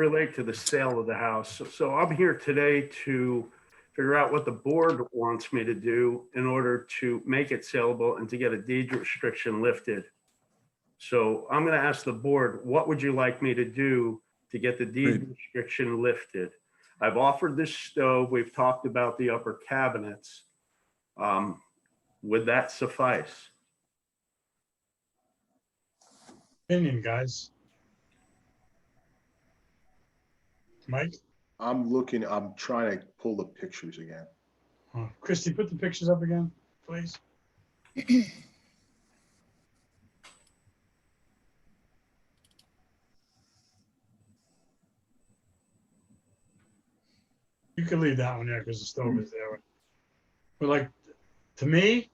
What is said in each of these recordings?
relate to the sale of the house. So- So I'm here today to figure out what the board wants me to do in order to make it saleable and to get a deed restriction lifted. So I'm going to ask the board, what would you like me to do to get the deed restriction lifted? I've offered this stove. We've talked about the upper cabinets. Um, Would that suffice? opinion, guys. Mike, I'm looking, I'm trying to pull the pictures again. Uh, Christie, put the pictures up again, please. You can leave that one there because the stove is there. But like, to me,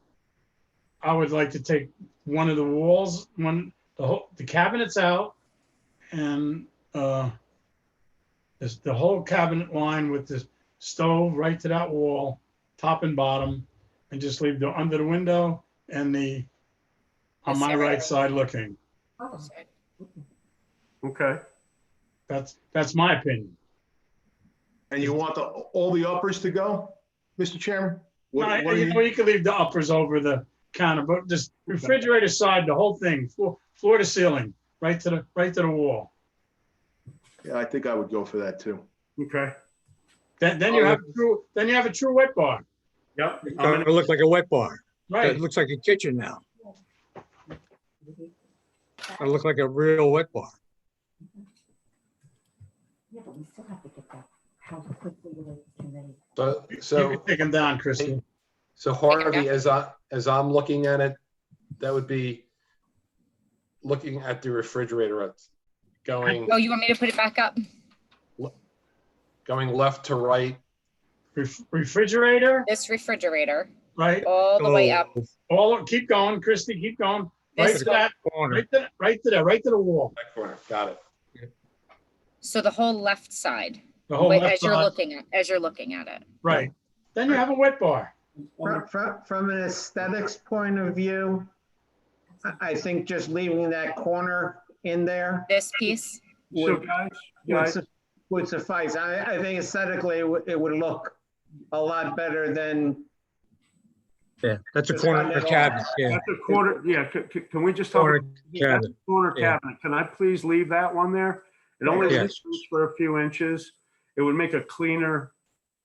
I would like to take one of the walls, one, the whole, the cabinets out and, uh, this, the whole cabinet line with this stove right to that wall, top and bottom, and just leave the, under the window and the, on my right side looking. Okay, That's, that's my opinion. And you want the, all the uppers to go, Mr. Chairman? What- No, what do You you- know, you could leave the uppers over the counter, but just refrigerator side, the whole thing, floor, floor to ceiling, right to the, right to the wall. Yeah, I think I would go for that too. okay. Then, then you Oh, have a true, then you have a true wet bar, Yep. I'm gonna- It looked like a wet bar. right? It looks like a kitchen now. It looked like a real wet bar. Yeah, but we still have to get that house quickly can they? So, You so, can take them down, Christie. so Harvey, as I, as I'm looking at it, that would be looking at the refrigerator, it's going, Oh, you want me to put it back up? going left to right. Ref- Refrigerator, This refrigerator, right? all the Oh, way Oh, up. All, keep going, Christie, keep going. Right This to wall. that, right to, that- right to that, right to the wall, That corner, got it. So the whole left side, the whole wait, Oh, left as you're side, looking at, as you're looking at it. right. Then you have a wet bar. From, from, from an aesthetics point of view, I, I think just leaving that corner in there This piece, So would, guys, would guys, su- would suffice. I, I think aesthetically, it would, it would look a lot better than, Yeah, that's a corner cabinet, yeah. That's a quarter, yeah, c- c- can we just talk? Corner that's cabinet. a Corner yeah. cabinet, can I please leave that one there? It only Yeah. leaves for a few inches. It would make a cleaner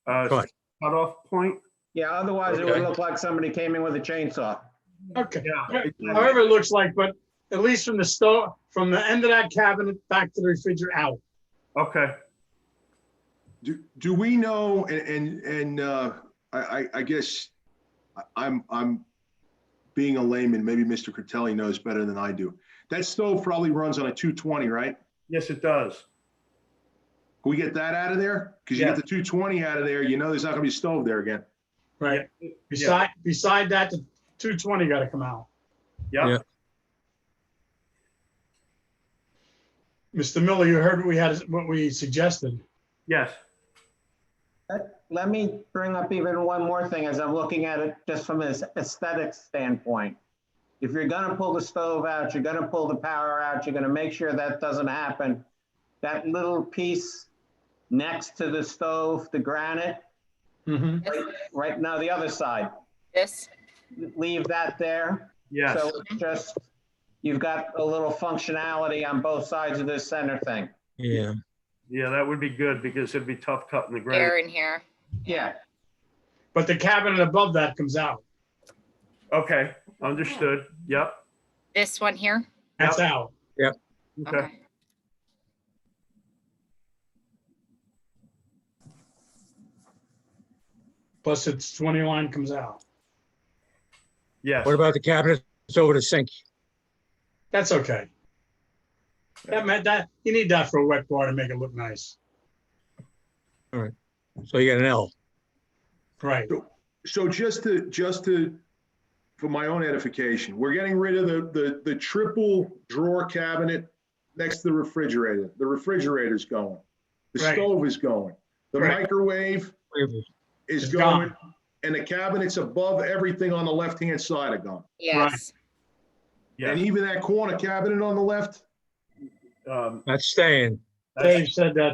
uh, Cut. cutoff point. yeah, otherwise it would Okay. look like somebody came in with a chainsaw. Okay, Yeah. however it looks like, but at least from the store, from the end of that cabinet back to the refrigerator out. Okay, Do, do we know, and, and, and, uh, I, I, I guess I- I'm, I'm being a layman, maybe Mr. Critelli knows better than I do. That stove probably runs on a 220, right? yes, it does. Can we get that out of there? Because you Yeah. get the 220 out of there, you know there's not gonna be a stove there again. Right. Beside, beside that, the two twenty gotta come out. Yeah, Yeah. Mr. Miller, you heard what we had, what we suggested. yes, Let me bring up even one more thing as I'm looking at it just from an aesthetic standpoint. If you're gonna pull the stove out, you're gonna pull the power out, you're gonna make sure that doesn't happen. That little piece next to the stove, the granite, Mhm. right now, the other side, this, leave that there. yes. So it's just, you've got a little functionality on both sides of this center thing. Yeah, Yeah, that would be good because it'd be tough cutting the here ground. and here. Yeah, But the cabinet above that comes out. Okay, understood. Yep. This one here. That's out. Okay, Okay. Plus it's twenty line comes out. yes. what about the cabinet that's over the sink? That's okay. That meant that, you need that for a wet bar to make it look nice. So you got an L. Right. So just to, just to, for my own edification, we're getting rid of the, the, the triple drawer cabinet next to the refrigerator. The refrigerator's going. The Right. stove is going. The Right. microwave is It's going. And the cabinets above everything on the left-hand side are gone. Yes. And Yeah. even that corner cabinet on the left, um, That's staying. Dave said that